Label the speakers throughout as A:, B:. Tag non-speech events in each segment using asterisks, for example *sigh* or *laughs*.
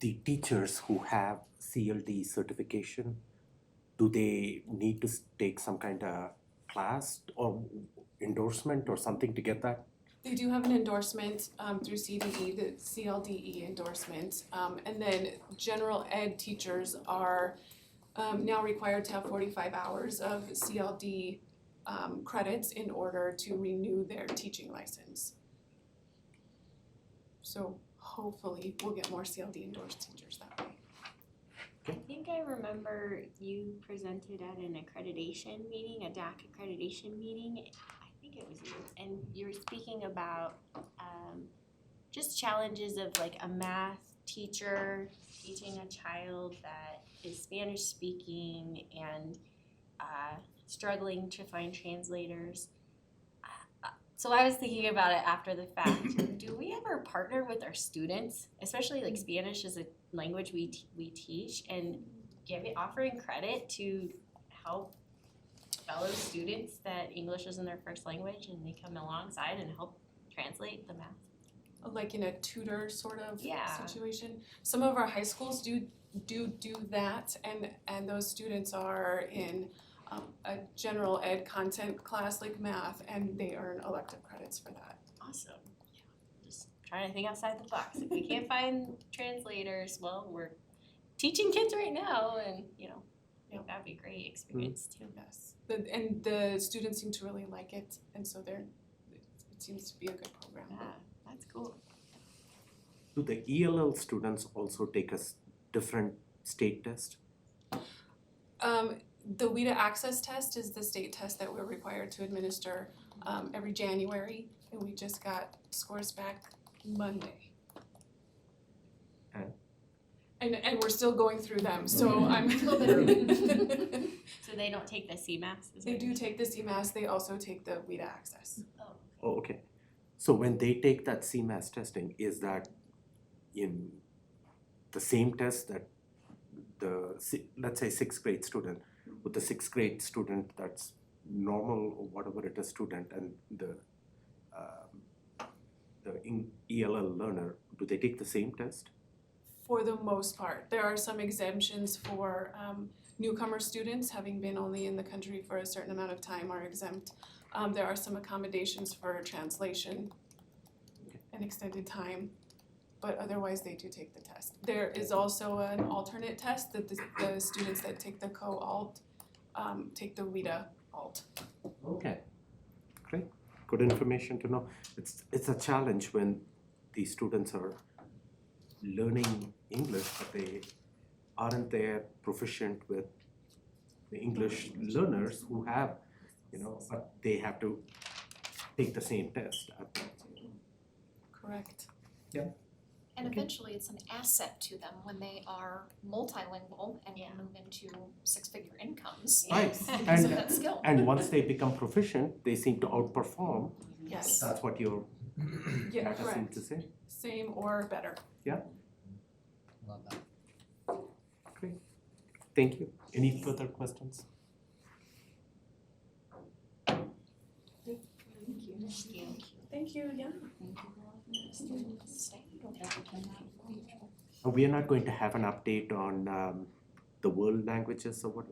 A: the teachers who have CLD certification, do they need to s- take some kind of class or endorsement or something to get that?
B: They do have an endorsement um through CDE, the CLDE E endorsement. Um and then general ed teachers are um now required to have forty-five hours of CLD um credits in order to renew their teaching license. So hopefully we'll get more CLD endorsed teachers that way.
C: I think I remember you presented at an accreditation meeting, a DAC accreditation meeting. I think it was you, and you were speaking about um just challenges of like a math teacher teaching a child that is Spanish speaking and uh struggling to find translators. Uh, So I was thinking about it after the fact. Do we ever partner with our students, especially like Spanish is a language we t- we teach and giving offering credit to help fellow students that English isn't their first language and they come alongside and help translate the math.
B: like in a tutor sort of
C: Yeah.
B: situation. Some of our high schools do do do that and and those students are in um a general ed content class like math and they earn elective credits for that.
C: Awesome. Just trying to think outside the box. If we can't find translators, well, we're teaching kids right now and you know,
B: Yeah. Mm-hmm.
C: that'd be a great experience too.
B: Yes. The and the students seem to really like it and so they're it seems to be a good program.
C: Yeah, that's cool.
A: Do the ELL students also take a s- different state test?
B: Um, the WIDA access test is the state test that we're required to administer um, every January, and we just got scores back Monday.
A: Okay.
B: And, and we're still going through them, so I'm.
C: So they don't take the CMAS? is
B: *laughs* They
C: what
B: do
C: you're
B: take the CMAS, they also take the WIDA access. *laughs*
C: Oh,
A: Oh, okay. So when they take that CMAS testing, is that in the same test that the, si- let's say, sixth grade student, with the sixth grade student that's normal or whatever it is student and the, um, the in- ELL learner, do they take the same test?
B: For the most part, there are some exemptions for um, newcomer students, having been only in the country for a certain amount of time are exempt. Um, there are some accommodations for translation and extended time, but otherwise they do take the test. There is also an alternate test that the, the students that take the co-alt, um, take the WIDA alt.
A: Okay. Great, good information to know. It's, it's a challenge when these students are learning English, but they aren't there proficient with the English learners who have, you know, but they have to take the same test.
B: Correct.
D: And
A: Okay.
D: eventually, it's an asset to them when they are multilingual and
C: Yeah.
D: move into six-figure incomes
A: Right,
D: because of
A: and,
D: that skill.
A: and once they become proficient, they seem to outperform.
B: Yes.
A: That's what your
B: Yeah,
A: data seemed
B: correct.
A: to say.
B: Same or better.
E: Love that.
A: Thank you. Any further questions?
C: thank you.
B: Thank you, yeah.
A: Uh, We are not going to have an update on um, the world languages or what,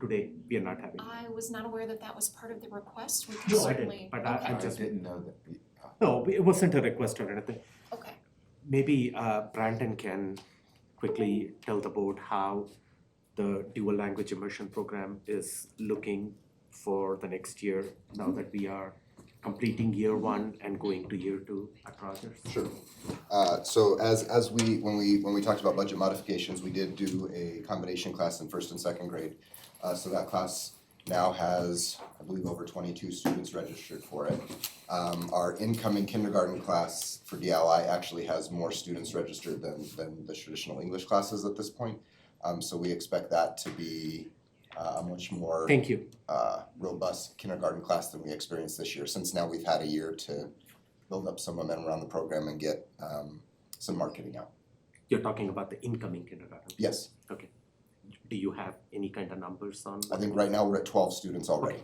A: today, we are not having.
D: I was not aware that that was part of the request. We can
A: No, I didn't,
D: certainly,
A: but I, I
E: I
A: just,
E: didn't know that. uh,
A: no, it wasn't a request or anything.
D: okay,
A: Maybe uh, Brandon can quickly tell the board how the dual language immersion program is looking for the next year, now that we are completing year one and going to year two at Rogers.
F: Sure. Uh, so as, as we, when we, when we talked about budget modifications, we did do a combination class in first and second grade. Uh, so that class now has, I believe, over twenty-two students registered for it. Um, our incoming kindergarten class for DLI actually has more students registered than, than the traditional English classes at this point. Um, so we expect that to be, uh, a much more
A: Thank you.
F: uh, robust kindergarten class than we experienced this year, since now we've had a year to build up some momentum around the program and get um, some marketing out.
A: You're talking about the incoming kindergarten.
F: Yes,
A: Do you have any kind of numbers on?
F: I think right now we're at twelve students already.